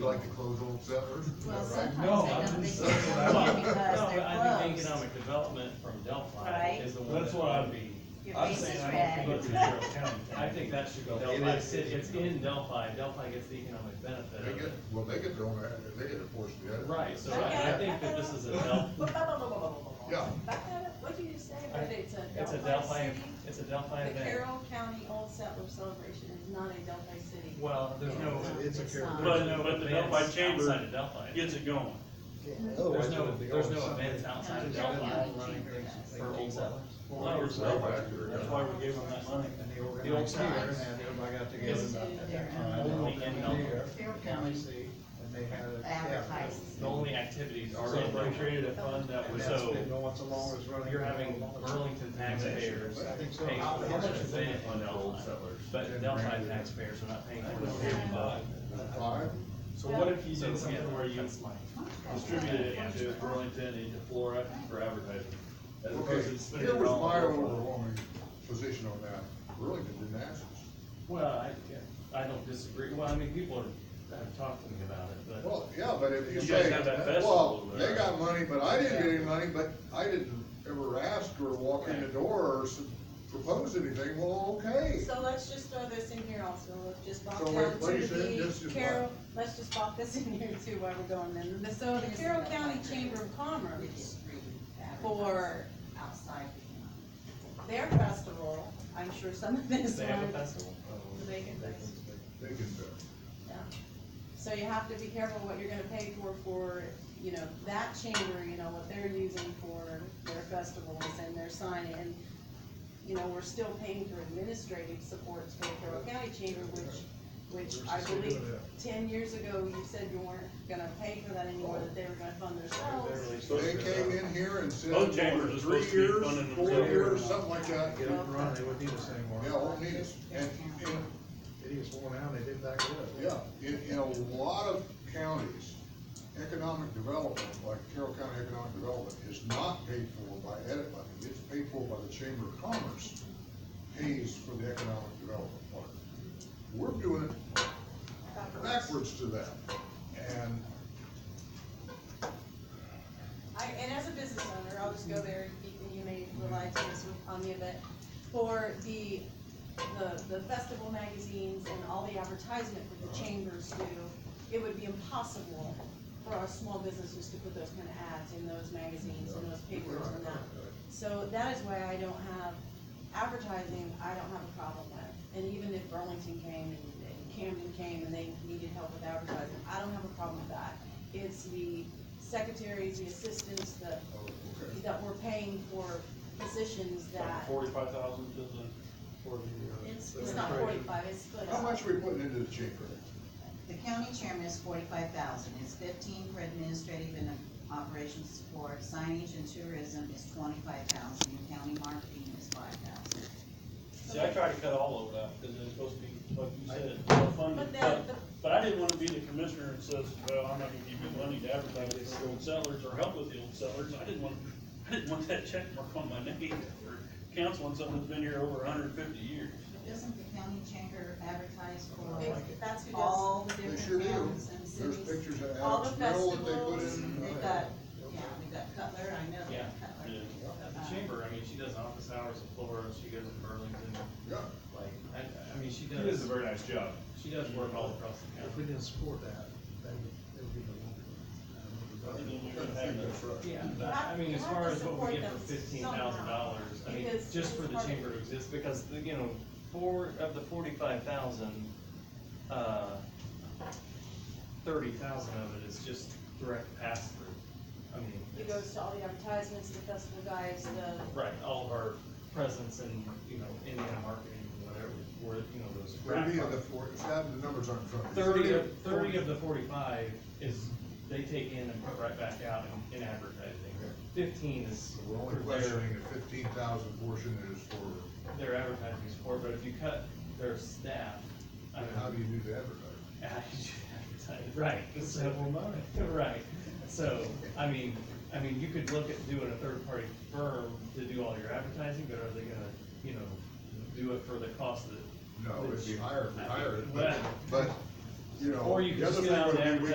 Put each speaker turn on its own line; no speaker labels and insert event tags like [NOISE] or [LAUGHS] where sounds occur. You like to close old settlers?
Well,
Is that right?
No,
Sometimes
I'm
they
just.
don't think they
Well,
want it because
no,
they're
I think
closed.
economic development from Delphi
Right.
is the one
That's
that
what
ought
I'm-
to be.
Your
I'm
face
saying
is
I
red.
don't think it's
[LAUGHS]
your county.
I think that should go
It
Delphi
is.
City, it's in Delphi, Delphi gets the economic benefit
They
of
get,
it.
well, they get their own, ad- they get a portion of it.
Right, so
Okay,
I, I think that this is a Delphi,
Blah, blah, blah, blah, blah, blah, blah, blah.
Yeah.
Back that up. What did you say?
I-
That it's a
it's a
Delphi
Delphi,
city?
it's a Delphi
The
event.
Carroll County Old Settler Celebration is not a Delphi city.
Well, there's no,
it's a
not.
Carroll.
there's
But-
no
but the
events
Delphi Chamber
outside of Delphi.
gets it going.
There's no, there's no events outside of
No, Carroll
Delphi
County Chamber does.
for old settlers.
That's why we gave them that money.
And they
The old
organized here,
times.
and had everybody got together
Yes.
at that Uh,
Only in
time. and opened it
Melbourne.
here,
Carroll
County seat, and they had. a- yeah,
Advertised.
The only activities are.
So they
created
a fund
And that's been going so long, it's running.
You're having Burlington taxpayers
I think so.
paying
How-
for
how much
it,
is
they
it?
didn't fund Delphi, but Delphi taxpayers are not paying for it.
Five?
So what if you did
something where you- Distributed it into Burlington, into Flora for advertising. As opposed
Okay,
to spending
here
it
was
all
my
on-
overwhelming position on that. Burlington didn't ask us.
Well, I, yeah, I don't disagree, well, I mean, people are, have talked to me about it, but.
Well, yeah, but if you
You guys
say,
have that
well,
festival over
they
there."
got money, but I didn't get any money, but I didn't ever ask or walk in the door or s- propose anything, well, okay.
So let's just throw this in here also, let's just bop
So
down
wait, what
to
is it? This
the
is
Carroll, let's just bop this in here too while we're going in. The- So the Carroll County Chamber of Commerce for
outside.
their festival, I'm sure some of this
They have a
one,
festival.
the bacon fest.
They can, uh,
Yeah. So you have to be careful what you're gonna pay for, for, you know, that chamber, you know, what they're using for their festivals and their sign and, you know, we're still paying for administrative supports for the Carroll County Chamber, which, which I believe ten years ago, you said you weren't gonna pay for that anymore, that they were gonna fund themselves.
So they came in here and said,
uh, Both chambers are
three
supposed to be
years,
funding
four
themselves.
years, something like that.
Get up and running, they wouldn't need us anymore.
Yeah, won't need us. And, and
It is worn out, they did that good.
Yeah, in, in a lot of counties, economic development, like Carroll County Economic Development, is not paid for by edit money, it's paid for by the Chamber of Commerce, pays for the economic development part. We're doing it backwards to that, and
I, and as a business owner, I'll just go there, Ethan, you may rely to this on me a bit, for the, the, the festival magazines and all the advertisement that the chambers do, it would be impossible for our small businesses to put those kind of ads in those magazines and those papers
uh,
and that. So that is why I don't have advertising, I don't have a problem with. And even if Burlington came and and Camden came and they needed help with advertising, I don't have a problem with that. It's the secretaries, the assistants, the, that we're paying for positions that,
Forty-five thousand to the, for the, uh,
it's, it's not forty-five, it's split
how
up.
much are we putting into the chamber?
The county chairman is forty-five thousand, it's fifteen for administrative and operations support, signage and tourism is twenty-five thousand, and county marketing is five thousand.
see, I tried to cut all of that, because it's supposed to be, like you said, well funded.
But then,
But,
the
but I didn't wanna be the commissioner that says, well, I'm not gonna give you money to advertise this for old settlers or help with the old settlers. I didn't want, I didn't want that check mark on my name for counseling someone that's been here over hundred and fifty years.
Doesn't the county chamber advertise
it-
for
that's who does,
all the
They
different
sure do,
towns and
there's
cities?
pictures of
all the
Alex Merrill that they put
festivals,
in. Uh,
We've got, yeah, we've got Cutler, I know
Yeah.
Cutler.
Yeah.
At the chamber, I mean, she does office hours in Florida, she goes to Burlington,
Yeah,
like, I, I mean, she
It is
does,
very nice job.
she does work all across the
If
country.
we didn't support that, that would, that would be the longer
I
run.
didn't
I
want to have
think
that.
that's right.
Yeah, but uh, I mean, as far as what we get for fifteen thousand dollars, I mean,
Because
just for
it's
the
part of-
chamber to exist, because, you know, four of the forty-five thousand, uh, thirty thousand of it is just direct pass-through. I mean,
it goes to all the advertisements, the festival guys, the,
right, all of our presence and, you know, Indiana marketing, and whatever, where, you know, those.
Thirty
rack
of the four, it's not the numbers on front. of me.
Thirty of, thirty of the forty-five is, they take in and put right back out in, in advertising. Fifteen is
So we're
for
only
their,
questioning the fifteen thousand portion is for,
their advertising support, but if you cut their staff, I mean,
how
how
do
do
you do the advertising?
you [LAUGHS] advertise? Right, so, right, so, I mean, I mean, you could look at doing a third-party firm to do all your advertising, but are they gonna, you know, do it for the cost that?
No, it'd be higher if we hired it, but,
Well-
but, you know.
Or you
the
could just
other
get
thing
out
would
and
be we